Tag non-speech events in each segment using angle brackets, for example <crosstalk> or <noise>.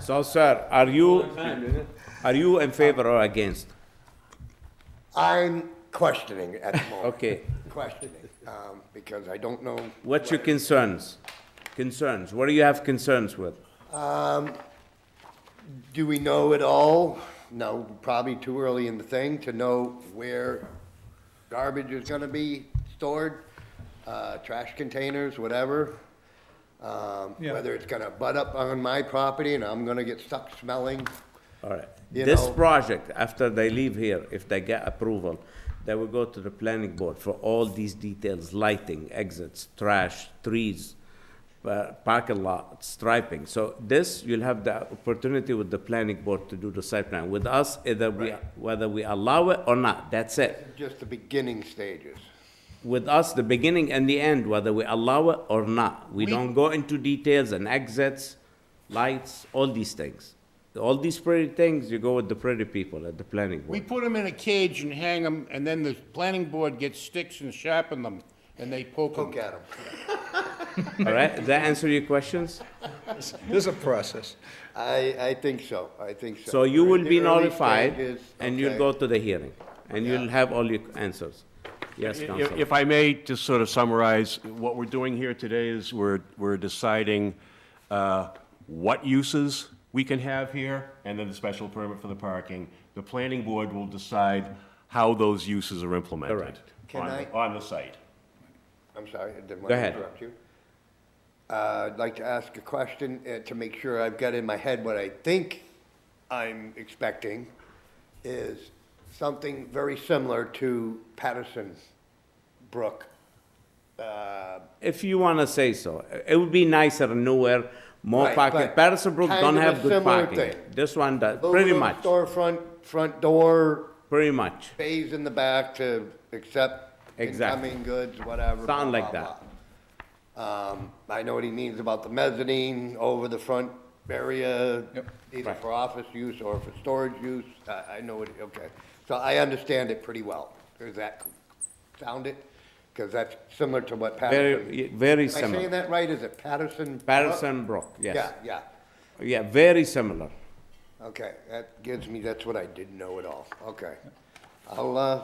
So, sir, are you, are you in favor or against? I'm questioning <laughs> at the moment. Okay. Questioning, um, because I don't know. What's your concerns? Concerns, what do you have concerns with? Do we know it all? No, probably too early in the thing to know where garbage is gonna be stored, uh, trash containers, whatever. Um, Yeah. whether it's gonna butt up on my property and I'm gonna get stuck smelling. All right. You This know- project, after they leave here, if they get approval, they will go to the planning board for all these details, lighting, exits, trash, trees, uh, parking lot, striping. So this, you'll have the opportunity with the planning board to do the site plan. With us, either we, whether we allow it or not, that's it. Just the beginning stages. With us, the beginning and the end, whether we allow it or not. We don't go into details and exits, lights, all these things. All these pretty things, you go with the pretty people at the planning board. We put them in a cage and hang them, and then the planning board gets sticks and sharpen them, and they poke them. Look at them. All right, does that answer your <laughs> questions? There's a process. I, I think so, I think so. So you We're in will the be early notified, stages, and you'll okay. go to the hearing, and you'll have all your answers. Yes, If Counselor? if I may, just sort of summarize, what we're doing here today is we're, we're deciding uh, what uses we can have here, and then the special permit for the parking. The planning board will decide how those uses are implemented Correct. Can on, I- the- on the site. I'm sorry, I didn't Go want ahead. to interrupt you. Uh, I'd like to ask a question uh, to make sure I've got in my head what I think I'm expecting is something very similar to Patterson Brook. Uh, If you want to say so. It would be nicer nowhere, more Right, parking. but Patterson Brook kind don't of a have good similar parking. thing. This one does, pretty aluminum much, Storefront, front door, pretty much. bays in the back to accept Exactly. incoming goods, whatever. blah, Sound like blah, that. blah. Um, I know what he means about the mezzanine over the front area, either for office use or for storage use. I, I know it, okay. So I understand it pretty well. Does that sound it? Because that's similar to what Patterson. Very, very Am I saying similar. that right? Is it Patterson? Patterson Brook, yes. Yeah, yeah. Yeah, very similar. Okay, that gives me, that's what I didn't know at all, okay. I'll, uh,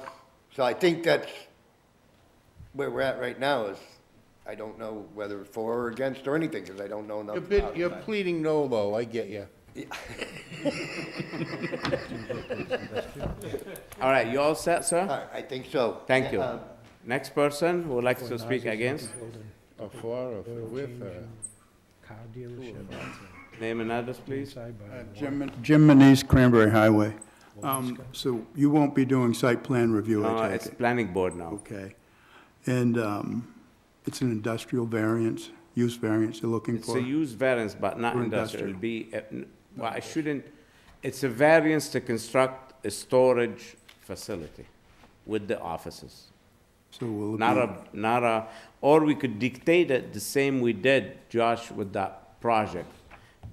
so I think that's where we're at right now is, I don't know whether for or against or anything, because I don't know You're enough bid- about You're it. pleading no, though, I get you. All right, you all set, All sir? right, I think so. Thank you. Uh, Next person who would like to speak against, Or for, or with, or... Car dealership. name and address, please. Side by Uh, Jim Jim Manise, Cranberry Highway. Um, So you won't be doing site plan review, No, I Uh, it's take it? planning board now. Okay. And um, it's an industrial variance, use variance you're looking It's a for? use variance, but not For industrial, it'll industrial. be, uh, n- well, I shouldn't, it's a variance to construct a storage facility with the offices. So will it Not be, a, not a, or we could dictate it the same we did, Josh, with that project.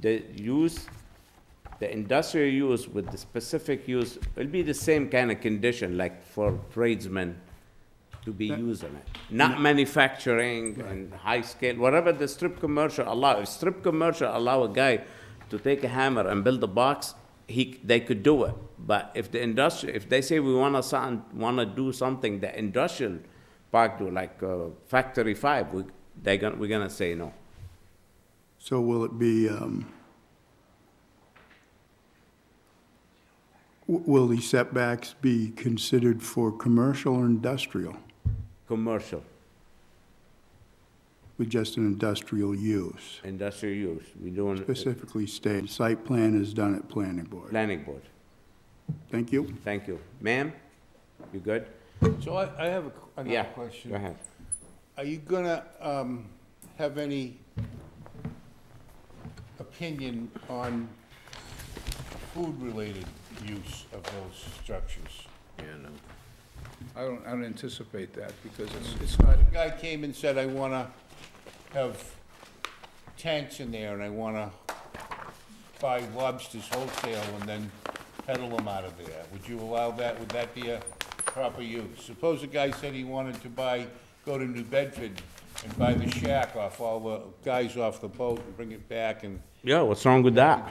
The use, the industrial use with the specific use, it'll be the same kind of condition, like for tradesmen to be using it. Not manufacturing and high scale, whatever the strip commercial allow, if strip commercial allow a guy to take a hammer and build a box, he, they could do it. But if the industry, if they say we wanna sound, wanna do something the industrial park do, like, uh, Factory Five, we, they gonna, we're gonna say no. so will it be, um, w- will the setbacks be considered for commercial or industrial Commercial, with just an industrial use? industrial use, we doing uh, Specifically stated, site plan is done at planning board. planning board. Thank you. Thank you. Ma'am, you good? So I, I have a qu- Yeah, another question. go ahead. Are you gonna, um, have any opinion on food-related use of those structures? I don't, I don't anticipate that because it's, it's not, Guy came and said, I wanna have tanks in there, and I wanna buy lobsters wholesale and then peddle them out of there. Would you allow that? Would that be a proper use? Suppose a guy said he wanted to buy, go to New Bedford and buy the shack off all the guys off the boat and bring it back and Yeah, what's wrong with that?